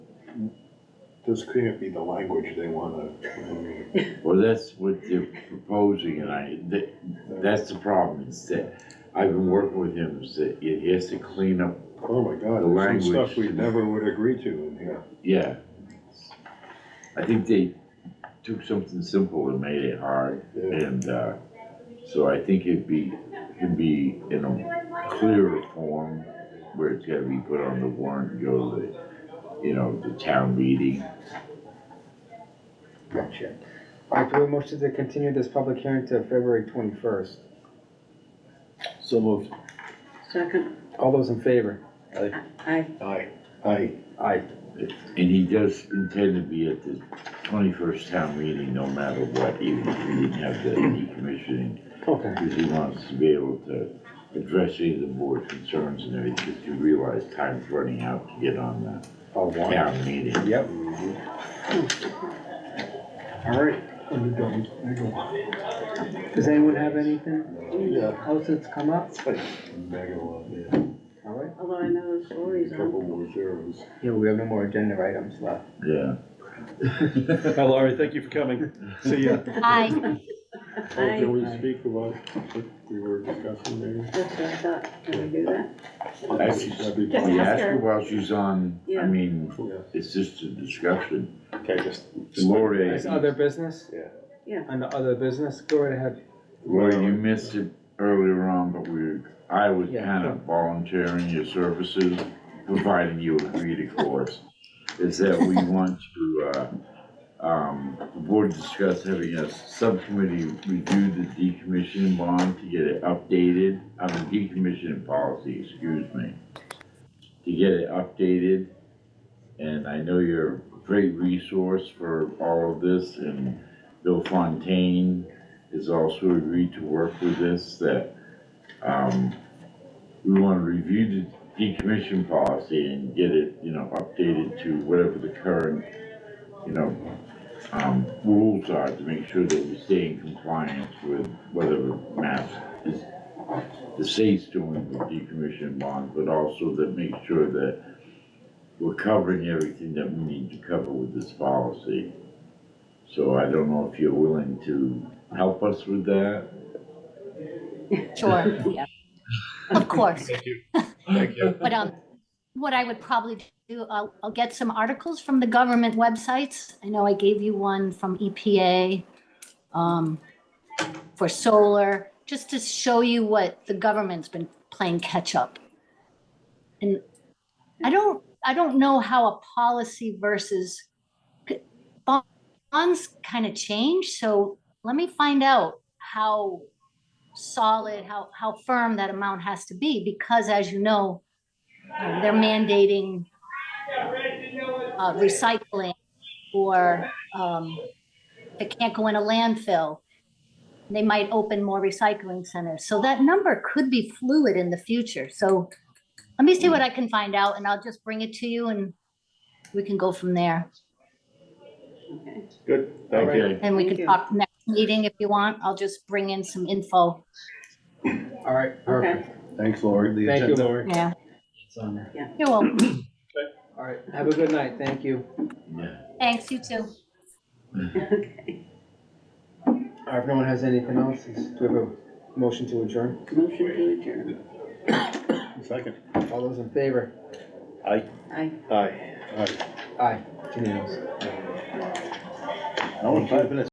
This can't be the language they wanna, I mean, Well, that's what they're proposing, and I, that, that's the problem, is that I've been working with him, is that he has to clean up, oh my The god, there's some stuff we language. never would agree to in here. yeah. I think they took something simple and made it hard, Yeah, and, uh, so I think it'd be, it'd be in a clearer form, where it's gotta be put on the warrant, and go to, the, you know, the town meeting. Gotcha. I do a motion to continue this public hearing to February twenty-first. So moved. Second, All those in favor? aye. aye, aye, Aye. And he does intend to be at the twenty-first town meeting, no matter what, even if we didn't have the decommissioning, Okay, because he wants to be able to address any of the board's concerns and everything, because you realize time's running out to get on the all one. town meeting. Yep. All right. Does anyone have anything yeah, else that's come up? it's like mega lot, yeah, All right. Although I know the story's on. couple more zeros. Yeah, we have no more agenda items left. Yeah. Hi Laurie, thank you for coming. See ya. Hi, Oh, Aye. Can we speak about what we were discussing there? That's what I thought, can we do that? Actually, That'd be Just fine. We ask asked her her. while she's on, I Yeah. mean, Yeah. it's just a discussion. Okay, just. Lori, There's other business? Yeah. Yeah. On the other business, go right ahead. Lori, you missed it earlier on, but we, I was Yeah. kind of volunteering your services, providing you agreed, of course. Is that we want to, uh, um, the board discussed having a subcommittee review the decommissioning bond to get it updated, I mean, decommissioning policy, excuse me. To get it updated, and I know you're a great resource for all of this, and Bill Fontaine has also agreed to work with this, that, um, we wanna review the decommission policy and get it, you know, updated to whatever the current, you know, um, rules are to make sure that we stay in compliance with whatever mass is, the state's doing with decommission bonds, but also that make sure that we're covering everything that we need to cover with this policy. So I don't know if you're willing to help us with that? sure, yeah, of course. Thank you. Thank you. But, um, what I would probably do, I'll, I'll get some articles from the government websites. I know I gave you one from EPA, um, for solar, just to show you what the government's been playing catch-up. And I don't, I don't know how a policy versus bonds kind of change, so let me find out how solid, how, how firm that amount has to be, because as you know, uh, they're mandating uh, recycling or um, it can't go in a landfill. They might open more recycling centers. So that number could be fluid in the future. So let me see what I can find out and I'll just bring it to you and we can go from there. Okay. Good, thank you. Okay. And we Thank can you. talk next meeting if you want. I'll just bring in some All info. right, perfect. Thanks, Lori. The Thank you, agenda- Lori. Yeah, It's on there. you're welcome. All right, have a good night. Thank you. Yeah. Thanks, you too. Okay. All right, if no one has anything else, is- do we have a motion to adjourn? Motion to adjourn. Second. All those in favor? Aye. Aye. Aye. 哎 Aye. Unanimous. No, five minutes.